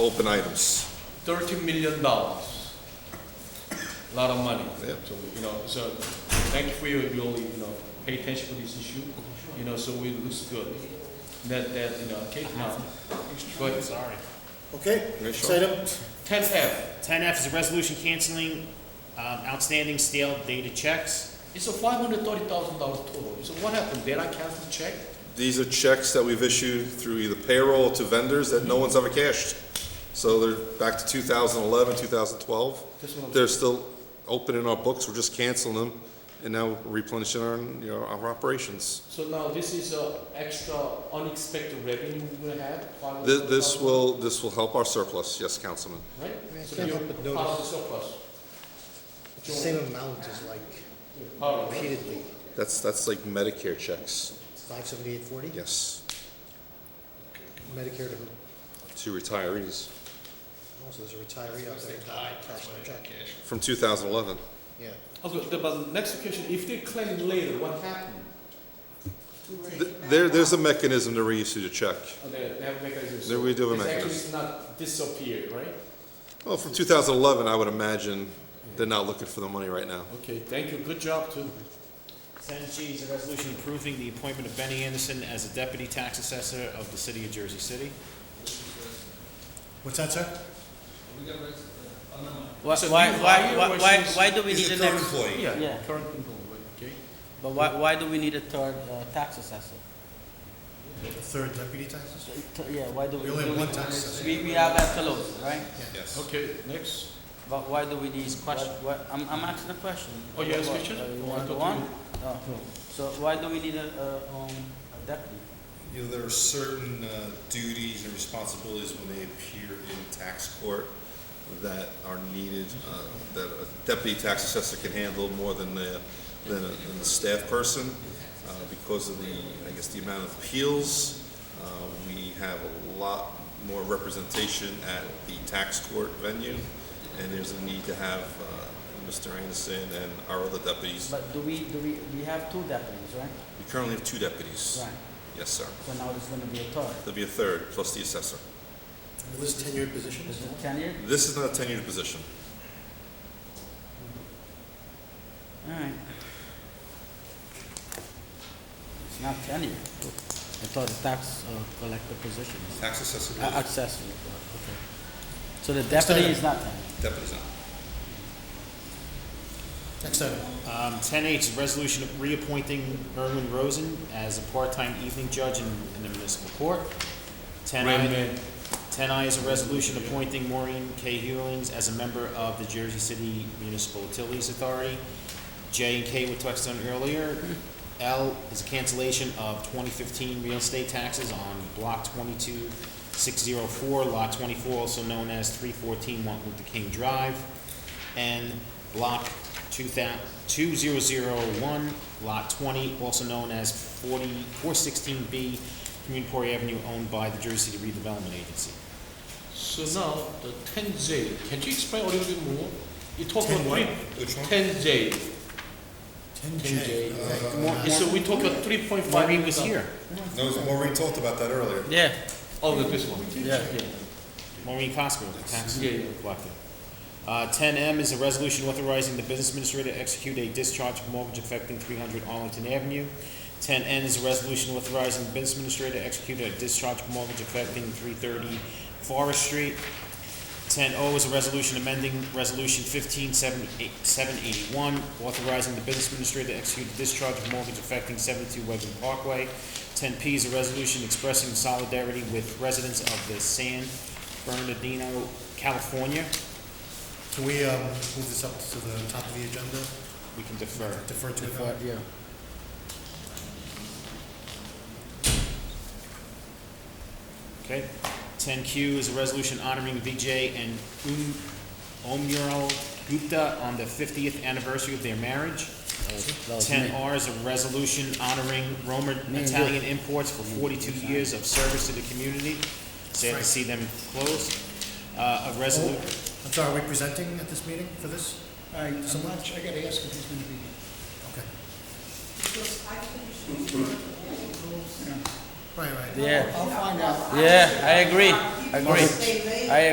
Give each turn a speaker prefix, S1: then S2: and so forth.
S1: open items.
S2: thirty million dollars. a Lot of money.
S1: Yep.
S2: So, you know, so thank you for your, your, you know, pay attention to this issue, you know, so we looks good. That, that, you know, okay, now, but
S3: Sorry.
S4: Okay,
S1: Yeah,
S4: next
S1: sure.
S4: item.
S2: ten F,
S3: Ten F is a resolution canceling um, outstanding stale dated checks.
S2: it's a five hundred thirty thousand dollars total. So what happened? Did I cancel the check?
S1: These are checks that we've issued through either payroll or to vendors that no one's ever cashed. So they're back to 2011, 2012.
S2: This one-
S1: They're still open in our books, we're just canceling them, and now replenishing our, you know, our operations.
S2: So now this is a extra unexpected revenue we're gonna have?
S1: This, this
S2: $530,000,
S1: will, this will help our surplus, yes, Councilman.
S2: Right?
S5: I
S2: So
S5: can't
S2: you're
S5: help but
S2: part of the
S5: notice.
S2: surplus.
S5: The same amount is like
S2: Part of it.
S5: repeatedly,
S1: That's, that's like Medicare checks,
S5: five seventy-eight forty,
S1: yes,
S5: Medicare to who?
S1: to retirees
S5: Also, there's a retiree out there. Cash in check.
S1: from 2011.
S5: Yeah,
S2: Okay, the- but the next question, if they claim later, what happened?
S1: Th- There, there's a mechanism to reissue the check.
S2: Okay, Oh, they have mechanisms.
S1: Then we do have a
S2: It's actually
S1: mechanism.
S2: not disappeared, right?
S1: Well, from 2011, I would imagine they're not looking for the money right now.
S2: Okay, thank you, good job too.
S3: Ten G is a resolution approving the appointment of Benny Anderson as a deputy tax assessor of the city of Jersey City.
S4: What's that, sir?
S6: Why,
S2: So
S6: why,
S2: you
S6: why,
S2: hire
S6: why,
S2: versus-
S6: why- why do we need
S7: He's a
S6: an
S7: current
S6: ex,
S7: employee.
S2: Yeah, current employee, okay?
S6: but why, why do we need a third uh, tax assessor?
S4: The third deputy tax assessor?
S6: Th- Yeah, why do we?
S4: We only have
S6: do
S4: one tax assessor.
S6: We, we have Escalona, right?
S1: Yes.
S2: Okay, next.
S6: But why do we need, what, what, I'm, I'm asking a question.
S2: Oh, you ask
S6: What-
S2: question?
S6: uh,
S2: Oh,
S6: You
S2: I
S6: want to
S2: thought
S6: go on? Oh. So why do we need a, a, um, a deputy?
S7: You know, there are certain uh, duties and responsibilities when they appear in tax court
S1: that are needed, uh, that a deputy tax assessor can handle more than the, than a, than a staff person, uh, because of the, I guess, the amount of appeals. Uh, we have a lot more representation at the tax court venue, and there's a need to have, uh, Mr. Anderson and our other deputies.
S6: But do we, do we, we have two deputies, right?
S1: We currently have two deputies.
S6: Right,
S1: Yes, sir.
S6: so now there's gonna be a third.
S1: There'll be a third, plus the assessor.
S4: Will this tenured position?
S6: Is it ten years?
S1: This is not a tenured position.
S6: Alright. It's not ten years. I thought the tax uh, collector position is.
S7: Tax assessor,
S6: Uh, Accessory, okay. So the deputy is not ten?
S7: deputies on.
S4: Next item.
S3: Um, ten H is a resolution reappointing Erwin Rosen as a part-time evening judge in, in the municipal court. Ten I. Ten I is a resolution appointing Maureen K. Hewlings as a member of the Jersey City Municipal Utilities Authority. J and K we touched on earlier. L is a cancellation of twenty fifteen real estate taxes on block twenty-two six zero four, lot twenty-four, also known as three fourteen Martin Luther King Drive. And block two thou- two zero zero one, lot twenty, also known as forty, four sixteen B, Communipore Avenue, owned by the Jersey City Redevelopment Agency.
S2: So now, the ten J, can you explain a little bit more? You talk
S4: Ten
S2: about
S4: what?
S2: three,
S7: Which one?
S2: ten J,
S4: Ten
S2: ten
S4: J.
S2: J.
S3: Maur-
S2: So we talk about three point five.
S3: Maureen was here.
S7: No, Maureen talked about that earlier.
S6: Yeah,
S2: Oh, the- this one.
S6: yeah, yeah.
S3: Maureen Cosgrove, the tax
S2: Yeah, yeah.
S3: collector. Uh, ten M is a resolution authorizing the business administrator to execute a discharge of mortgage affecting three hundred Arlington Avenue. Ten N is a resolution authorizing the business administrator to execute a discharge of mortgage affecting three thirty Forest Street. Ten O is a resolution amending Resolution fifteen seven eight, seven eighty-one, authorizing the business administrator to execute a discharge of mortgage affecting seventy-two Wegmans Parkway. Ten P is a resolution expressing solidarity with residents of the San Bernardino, California.
S4: Can we um, move this up to the top of the agenda,
S3: We can defer.
S4: defer to it?
S6: Yeah.
S3: Okay. Ten Q is a resolution honoring Vijay and Um- Omural Gupta on the fiftieth anniversary of their marriage.
S6: That was- that was
S3: Ten
S6: me.
S3: R is a resolution honoring Roman
S6: Me and
S3: Italian imports for forty-two years of service to the community. Sad to see them close. Uh, a
S4: Oh,
S3: resolution.
S4: I'm sorry, are we presenting at this meeting for this?
S8: I, I'm
S4: So
S8: not, sure- I gotta ask if he's gonna be here.
S4: Okay. Right, right.
S6: Yeah,
S8: I'll find out.
S6: yeah, I agree, agree. I